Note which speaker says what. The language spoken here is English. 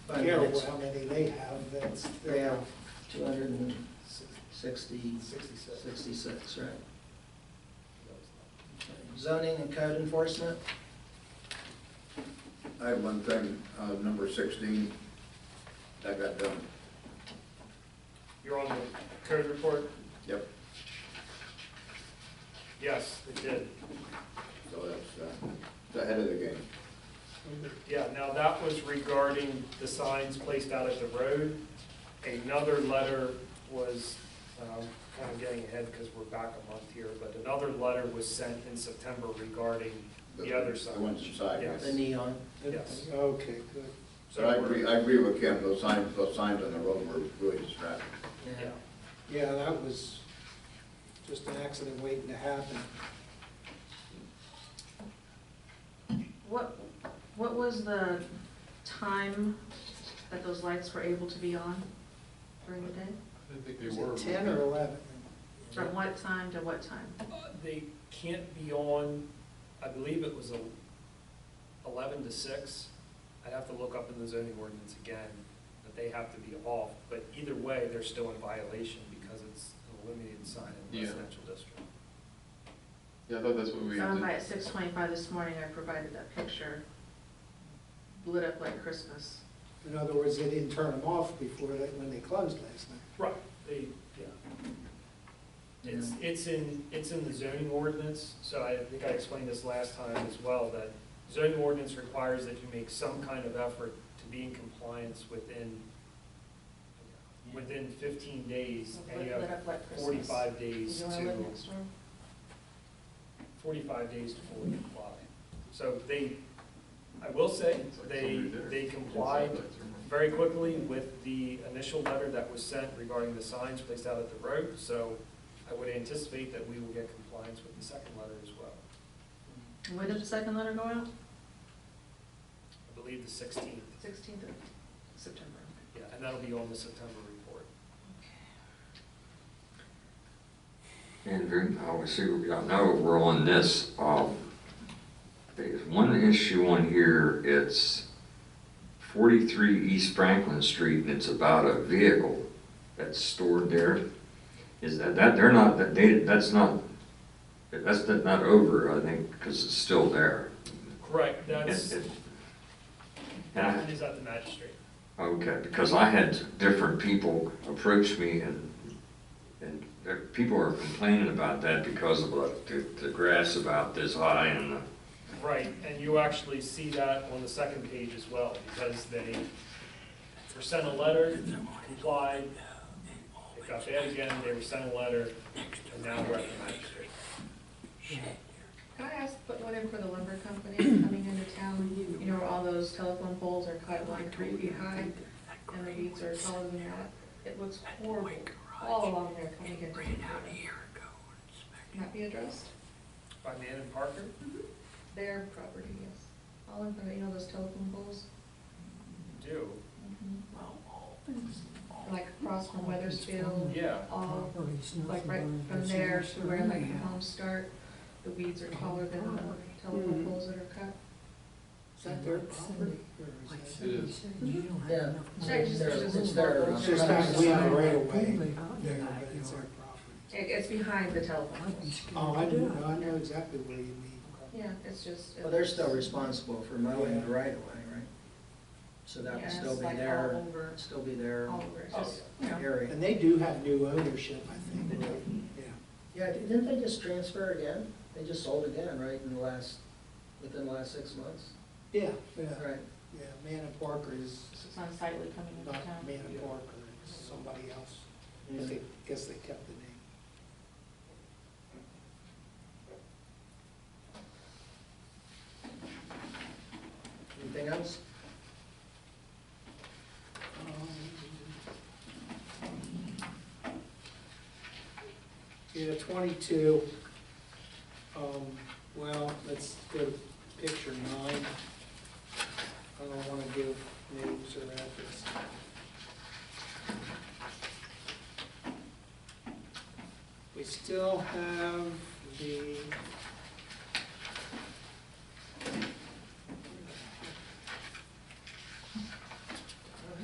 Speaker 1: Five
Speaker 2: care
Speaker 1: minutes.
Speaker 2: how many they have, that's
Speaker 1: They
Speaker 2: their
Speaker 1: have two hundred and
Speaker 2: six-
Speaker 1: sixty,
Speaker 2: sixty-six.
Speaker 1: sixty-six, right? Zoning and code enforcement,
Speaker 3: I have one thing, uh, number sixteen, that got done.
Speaker 4: You're on the code report?
Speaker 3: Yep.
Speaker 4: Yes, it did.
Speaker 3: So that's, uh, the head of the game.
Speaker 4: Yeah, now that was regarding the signs placed out at the road. Another letter was, um, kind of getting ahead because we're back a month here, but another letter was sent in September regarding the other
Speaker 3: The ones
Speaker 4: signage.
Speaker 3: inside.
Speaker 4: Yes.
Speaker 1: the neon.
Speaker 4: Yes.
Speaker 2: Okay, good.
Speaker 3: So I agree, I agree with Kim, those signs, those signs on the road were really distracting.
Speaker 4: Yeah,
Speaker 2: Yeah, that was just an accident waiting to happen.
Speaker 5: What, what was the time that those lights were able to be on during the day?
Speaker 6: I didn't think they
Speaker 2: Was
Speaker 6: were.
Speaker 2: it ten or eleven?
Speaker 5: From what time to what time?
Speaker 4: They can't be on, I believe it was a- eleven to six. I'd have to look up in the zoning ordinance again, but they have to be off. But either way, they're still in violation because it's a limited sign in a
Speaker 6: Yeah.
Speaker 4: residential district.
Speaker 6: Yeah, I thought that's what we
Speaker 5: Found by
Speaker 6: did.
Speaker 5: at six twenty-five this morning, I provided that picture, lit up like Christmas.
Speaker 2: In other words, they didn't turn them off before, they- when they closed last night.
Speaker 4: Right, they, yeah. It's, it's in, it's in the zoning ordinance, so I think I explained this last time as well, that zoning ordinance requires that you make some kind of effort to be in compliance within, within fifteen days, and you
Speaker 5: Lit-
Speaker 4: have
Speaker 5: lit up like Christmas.
Speaker 4: forty-five days
Speaker 5: You know where I live
Speaker 4: to,
Speaker 5: next door?
Speaker 4: forty-five days to fully comply. So they, I will say,
Speaker 6: It's like
Speaker 4: they,
Speaker 6: somebody there.
Speaker 4: they
Speaker 6: Inside
Speaker 4: complied
Speaker 6: lights are more-
Speaker 4: very quickly with the initial letter that was sent regarding the signs placed out at the road, so I would anticipate that we will get compliance with the second letter as well.
Speaker 5: And When did the second letter go out?
Speaker 4: I believe the sixteenth,
Speaker 5: Sixteenth of September.
Speaker 4: yeah, and that'll be on the September report.
Speaker 7: Andrew, obviously, I know we're on this, um, there's one issue on here, it's forty-three East Franklin Street, and it's about a vehicle that's stored there. Is that, that, they're not, that they, that's not, that's not over, I think, because it's still there.
Speaker 4: Correct, that's,
Speaker 7: And- and-
Speaker 4: that is at the magistrate.
Speaker 7: Okay, because I had different people approach me and, and there- people are complaining about that because of like the, the grass about this high and the,
Speaker 4: Right, and you actually see that on the second page as well, because they were sent a letter, complied, it got bad again, they were sent a letter, and now we're at the magistrate.
Speaker 5: Can I ask, put one in for the lumber company coming into town? You know, where all those telephone poles are cut like three feet high and the beads are taller than that. It looks horrible all along there coming into town. Can that be addressed?
Speaker 4: By Mann and Parker?
Speaker 5: Their property, yes. All in front, you know, those telephone poles,
Speaker 4: Do,
Speaker 5: like across from Weathersfield,
Speaker 4: yeah.
Speaker 5: all, like right from there to where like the homes start. The weeds are taller than the telephone poles that are cut.
Speaker 2: Is that their property? or is that-
Speaker 6: It is.
Speaker 1: Yeah.
Speaker 5: Sorry, just-
Speaker 1: It's there.
Speaker 2: It's just not, we have a right of way there, but Oh, it's their property.
Speaker 5: It, it's behind the telephone poles.
Speaker 2: Oh, I do, I know exactly what you mean.
Speaker 5: Yeah, it's just.
Speaker 1: Well, they're still responsible for mowing the right of way, right? So that
Speaker 5: Yeah,
Speaker 1: would
Speaker 5: it's
Speaker 1: still be
Speaker 5: like
Speaker 1: their,
Speaker 5: all over,
Speaker 1: still be their
Speaker 5: all over, it's
Speaker 4: Oh,
Speaker 5: just, you know.
Speaker 1: area.
Speaker 2: And they do have new ownership, I think, right? Yeah.
Speaker 1: Yeah, didn't they just transfer again? They just sold again, right, in the last, within the last six months?
Speaker 2: Yeah, yeah,
Speaker 1: Right.
Speaker 2: yeah, Man and Parker is
Speaker 5: It's unsightly coming into
Speaker 2: not
Speaker 5: town.
Speaker 2: Man and Parker, it's somebody else. I think, guess they kept the name.
Speaker 1: Anything else?
Speaker 2: Yeah, twenty-two, um, well, let's go to picture nine. I don't wanna give names or addresses. We still have the